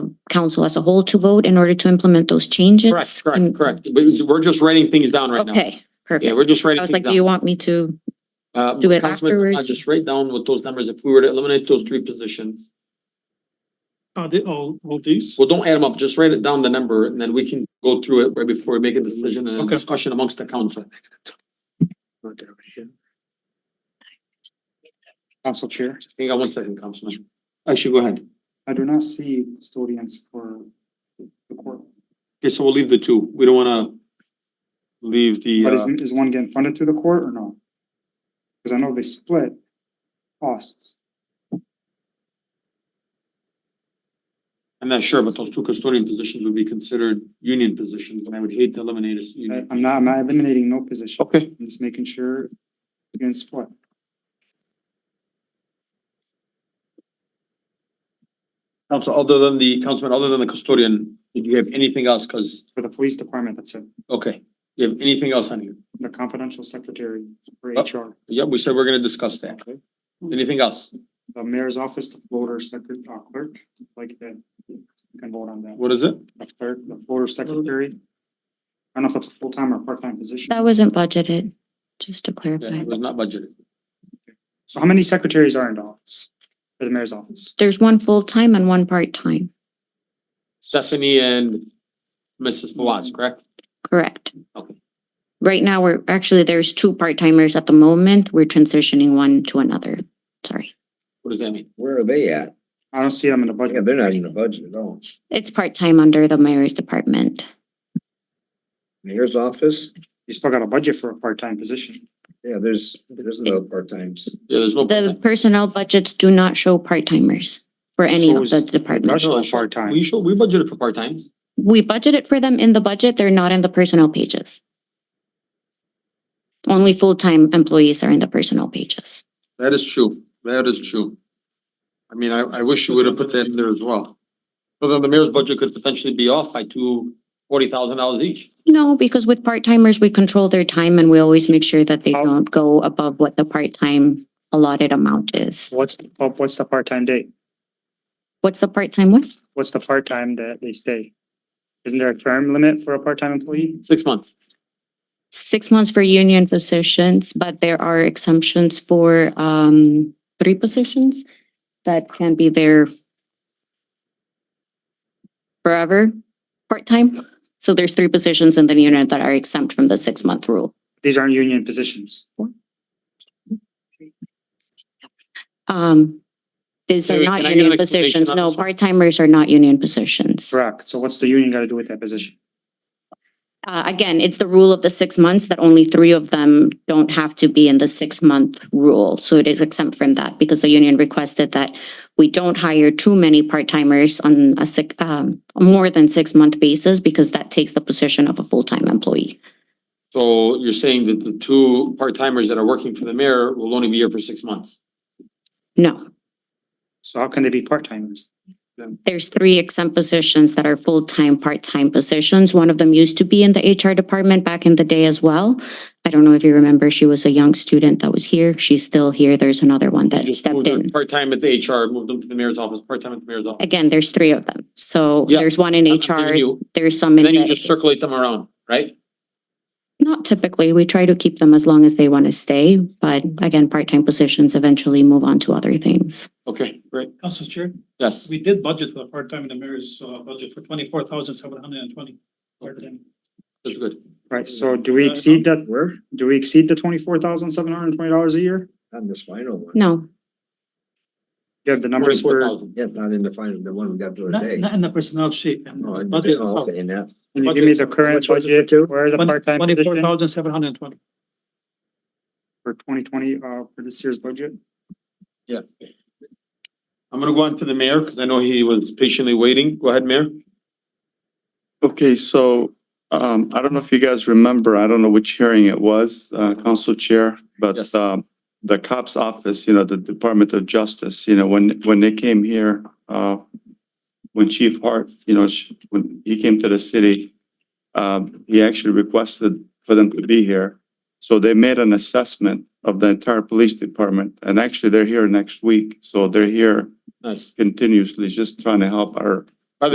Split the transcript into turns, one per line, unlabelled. council as a whole to vote in order to implement those changes.
Correct, correct,
And-
correct. We- We're just writing things down right now.
Okay,
Yeah,
perfect.
we're just
I
writing
was
things
like,
down.
do you want me to,
Uh,
do it
Councilman, uh,
afterwards?
Just write down what those numbers, if we were to eliminate those three positions,
Oh, the, oh, well, these?
well, don't add them up, just write it down the number and then we can go through it right before we make a decision and a
Okay.
discussion amongst the council.
Council Chair,
Hang on one second, Councilman.
actually, go ahead. I do not see custodians for the court.
Okay, so we'll leave the two. We don't wanna leave the, uh,
But is, is one getting funded through the court or no? Cause I know they split costs.
I'm not sure, but those two custodian positions would be considered union positions and I would hate to eliminate a
I-
union.
I'm not, I'm not eliminating no position.
Okay.
I'm just making sure it's getting split.
Council, other than the, Councilman, other than the custodian, did you have anything else? Cause,
For the police department, that's it.
okay, you have anything else on here?
The confidential secretary for
Oh.
HR,
Yep, we said we're gonna discuss that. Anything else?
the mayor's office, the floater secret, uh, clerk, like that. You can vote on that.
What is it?
The clerk, the floater secretary. I don't know if it's a full-time or part-time position.
that wasn't budgeted, just to
Yeah,
clarify.
it was not budgeted.
So how many secretaries are in the office? For the mayor's office?
There's one full-time and one part-time,
Stephanie and Mrs. Fawaz, correct?
correct?
Okay.
Right now, we're, actually, there's two part-timers at the moment. We're transitioning one to another. Sorry.
What does that mean?
Where are they at?
I don't see them in the
Yeah,
budget.
they're not in the budget at all.
It's part-time under the mayor's department.
Mayor's office,
You still got a budget for a part-time position.
yeah, there's, there's no part-times.
Yeah, there's no.
The personnel budgets do not show part-timers for any of the departments.
Budget for part-time.
We should, we budgeted for part-time.
We budgeted for them in the budget, they're not in the personnel pages. Only full-time employees are in the personnel pages.
That is true. That is true. I mean, I, I wish you would have put that in there as well. So then the mayor's budget could potentially be off by two, forty thousand dollars each.
No, because with part-timers, we control their time and we always make sure that they don't go above what the part-time allotted amount is.
What's, what- what's the part-time date?
What's the part-time with?
What's the part-time that they stay? Isn't there a term limit for a part-time employee?
Six months.
Six months for union positions, but there are exemptions for um three positions that can be there forever, part-time. So there's three positions in the unit that are exempt from the six-month rule.
These aren't union positions.
Um, these
Wait,
are
wait,
not
can I get an
union
explanation
positions.
on
No,
this one?
part-timers are not union positions.
Correct. So what's the union gotta do with that position?
Uh, again, it's the rule of the six months that only three of them don't have to be in the six-month rule. So it is exempt from that because the union requested that we don't hire too many part-timers on a sick, um, more than six-month basis because that takes the position of a full-time employee.
So you're saying that the two part-timers that are working for the mayor will only be here for six months?
No,
So how can they be part-timers?
there's three exempt positions that are full-time, part-time positions. One of them used to be in the HR department back in the day as well. I don't know if you remember, she was a young student that was here. She's still here. There's another one that
Just
stepped
moved
in.
them Part-time at the HR, moved them to the mayor's office, part-time at the mayor's office.
Again, there's three of them. So
Yeah.
there's one in
I'm giving
HR,
you-
there's some in
Then you just
the,
circulate them around, right?
not typically, we try to keep them as long as they want to stay. But
Mm-hmm.
again, part-time positions eventually move on to other things.
Okay, great.
Council Chair,
Yes.
we did budget for the part-time in the mayor's, uh, budget for twenty-four thousand seven hundred and twenty. Part-time.
That's good.
Right, so do we exceed that,
Where?
do we exceed the twenty-four thousand seven hundred and twenty dollars a year?
Not in this final one.
No,
You have the numbers for, and
44,000.
Yeah, not in the final, the one we got the
Not,
other day.
not in the personnel sheet. and
No, I-
budget
oh,
itself.
okay, and that's-
you give me the current
Which was
budget, where the part-time
Twenty-four
position
thousand seven hundred and twenty.
for twenty twenty, uh, for this year's budget?
Yeah. I'm gonna go on to the mayor, because I know he was patiently waiting. Go ahead, Mayor.
Okay, so um I don't know if you guys remember, I don't know which hearing it was, uh Council Chair,
Yes.
but um the cops office, you know, the Department of Justice, you know, when when they came here, uh when Chief Hart, you know, sh- when he came to the city, um he actually requested for them to be here. So they made an assessment of the entire police department, and actually they're here next week, so they're here
Nice.
continuously, just trying to help our